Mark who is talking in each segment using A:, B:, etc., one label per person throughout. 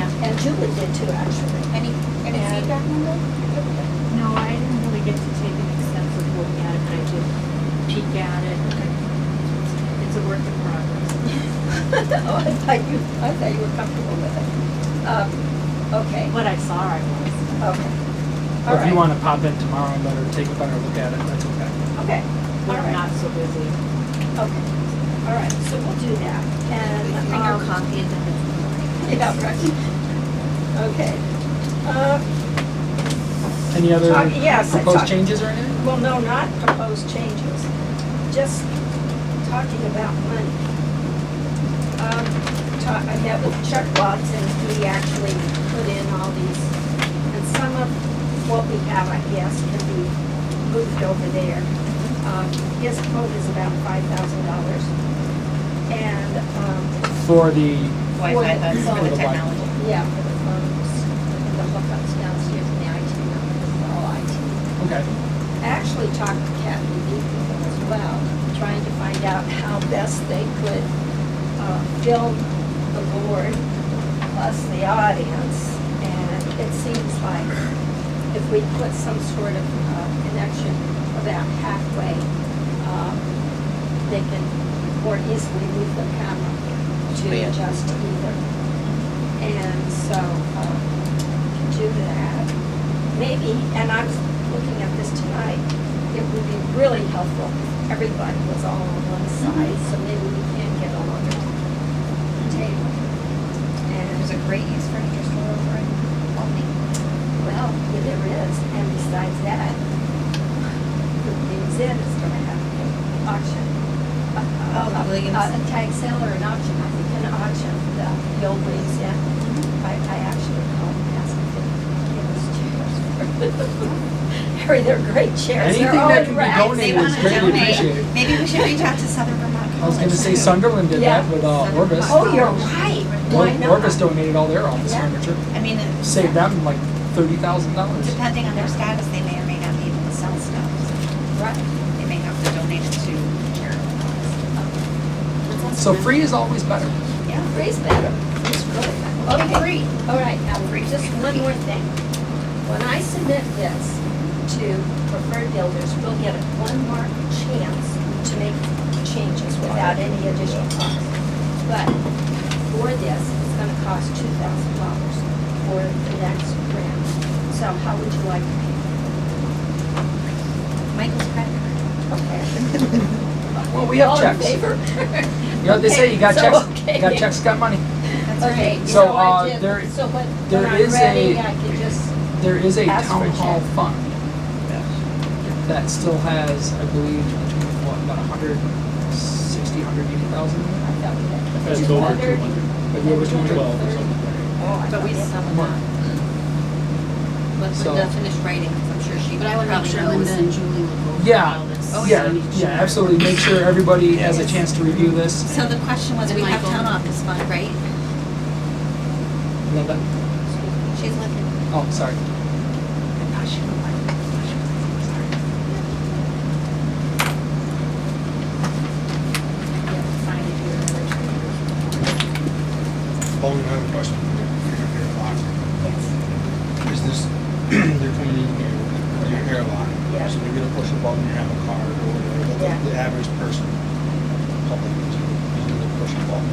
A: and Julie did too, actually.
B: Any, any
C: Yeah.
B: feedback on that?
C: No, I didn't really get to take an extensive look at it, but I did peek at it. It's a work in progress.
A: Oh, I thought you, I thought you were comfortable with it. Um, Okay,
C: What I saw, I was.
A: okay. All
D: Or if you
A: right.
D: want to pop in tomorrow and let her take a better look at it, that's okay.
A: Okay, all
C: We're
A: right,
C: not so busy.
A: okay. All right, so we'll do that. And.
E: Bring her
A: um,
E: coffee and then.
A: Yeah, right. Okay. Uh,
D: Any other
A: Talk- Uh, yes, I
D: proposed
A: talked-
D: changes or anything?
A: Well, no, not proposed changes, just talking about money. Um, ta- I met with Chuck Watson, he actually put in all these, and some of what we have, I guess, can be moved over there. Um, His quote is about five thousand dollars. And, um,
D: For the,
E: Wi-Fi, that's
D: For
E: for
D: the
E: the
D: Wi-Fi.
E: technology.
A: yeah, for the phones,
E: The hookups downstairs and the IT numbers, they're all IT.
D: okay,
A: actually talked to Kathy Lee people as well, trying to find out how best they could uh, film the board plus the audience. And it seems like if we put some sort of uh, connection about halfway, um, they can more easily move the camera to adjust to either. And so, um, do that. Maybe, and I was looking at this tonight, it would be really helpful if everybody was all on one side, so maybe we can get a longer table.
E: There's a
A: And,
E: great use for your store over in Albany.
A: well, yeah, there is, and besides that, the museum is gonna have an auction.
E: Oh, Williams.
A: A tag sale or an auction, I think an auction, for the, the old museum.
E: Mm-hmm.
A: I, I actually called and asked if they gave us chairs. Harry, they're great chairs.
D: Anything
A: They're
D: that
A: always
D: can be
A: racked.
D: donated It's
E: They want to
D: greatly appreciated.
E: donate. Maybe we should reach out to Southern Vermont College.
D: I was gonna say Sunderland did that
A: Yeah.
D: with uh, Orbis.
A: Oh, you're right. Why
D: Or-
A: not?
D: Orbis donated all their office
A: Yeah.
D: furniture,
E: I mean, it-
D: saved them like thirty thousand dollars.
E: depending on their status, they may or may not be able to sell stuff.
A: Right.
E: They may have to donate it to charitable causes.
D: So free is always better.
E: Yeah.
A: Free's better. It's really better.
E: Okay,
A: Okay, all right, now, just one more thing. When I submit this to preferred builders, we'll get a one mark chance to make changes without any additional cost. But for this, it's gonna cost two thousand dollars for the next grant. So how would you like to pay?
E: Michael's credit card.
A: Okay.
D: Well, we have checks.
A: All in favor?
D: You know what they say, you got
A: Okay, so,
D: checks,
A: okay.
D: you got checks, got money.
E: That's
A: Okay,
E: right.
D: So,
A: so
D: uh,
A: I did,
D: there-
A: so when, when
D: there
A: I'm
D: is a-
A: ready, I could just,
D: There is a
A: Ask
D: town
A: for
D: hall
A: checks.
D: fund that still has, I believe, between what, about a hundred sixty, hundred eighty thousand?
A: I thought we had.
F: That's
A: Two
F: over
A: hundred.
F: 200,
D: Maybe over two hundred?
F: 12 or something.
A: Oh, I
E: But we
A: thought
E: sell
D: Come
E: them
D: on.
E: out. Let
D: So-
E: Linda finish writing, 'cause I'm sure she
G: But I would make
E: probably
G: sure
E: knows.
G: Linda and Julie will go over
D: Yeah.
G: all this.
E: Oh,
D: Yeah,
G: on each
D: yeah,
G: other.
D: absolutely. Make sure everybody has a chance to review this.
E: So the question was,
G: And
E: we have
G: Michael.
E: town office fund, right?
D: Linda?
E: She's looking.
D: Oh, sorry.
H: Only another question. Is this, they're coming in here with your hairline?
A: Yeah.
H: So you're gonna push a button, you have a card or whatever.
A: Yeah.
H: The- The average person, public, is gonna push a button.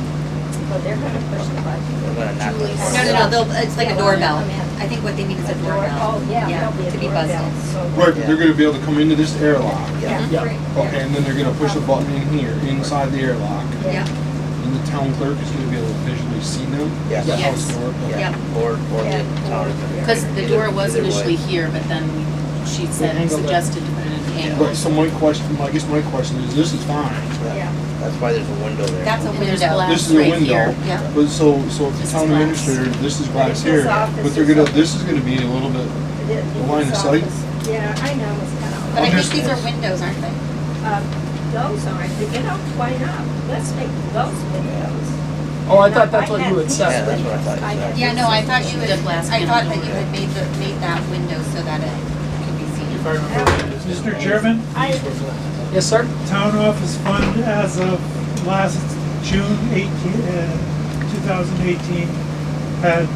A: Well, they're gonna push the button.
E: No, no, no, they'll, it's like
A: Yeah.
E: a doorbell.
A: Yeah.
E: I think what they mean is a
A: door-
E: doorbell.
A: Oh, yeah, there'll be a
E: To be
A: doorbell,
E: buzzed
A: so-
H: Right, but they're gonna be able to come into this airlock.
A: Yeah.
D: Yeah.
A: great,
H: Okay, and then they're gonna push a button in here, inside the airlock.
E: in.
A: Yeah.
E: Yeah,
H: And the town clerk is gonna be able to visually see them.
I: Yes.
H: That's how
G: Yes.
H: it's gonna work. Okay.
E: yeah.
I: Or, or
A: Yeah.
I: the town attorney.
G: Because the door was
I: Either way.
G: initially here, but then she said,
D: angled it.
G: suggested to put it at an angle.
H: Right, so my question, I guess my question is, this is fine.
A: Yeah.
I: That's why there's a window there.
E: That's a
G: And there's
E: window.
G: glass
H: This is a
G: right
H: window,
G: here. Yeah.
H: but so, so if the
G: This
H: town
G: is glass.
H: administrator, this is glass
A: This is
H: here, but
A: office
H: they're gonna,
A: is-
H: this is gonna be a little bit,
A: It is-
H: The line of
A: it's
H: sight?
A: office. Yeah, I know, it's kind of.
E: But I think
H: Understand.
E: these are windows, aren't they?
A: Uh, Those aren't, but you know, why not? Let's make those windows.
D: Oh, I thought that's what
A: had
D: you had
A: these
I: Yeah,
D: said.
I: that's what I
A: windows.
I: thought you said.
A: had
E: Yeah,
A: these
E: no, I thought
A: windows.
E: you had,
G: The glass
E: I thought that
G: panel.
E: you had made the, made that window so that it could be
F: If
E: seen.
F: I remember. Mr.
J: Chairman,
A: I,
D: Yes, sir?
J: town office fund as of last June 18, uh, 2018, had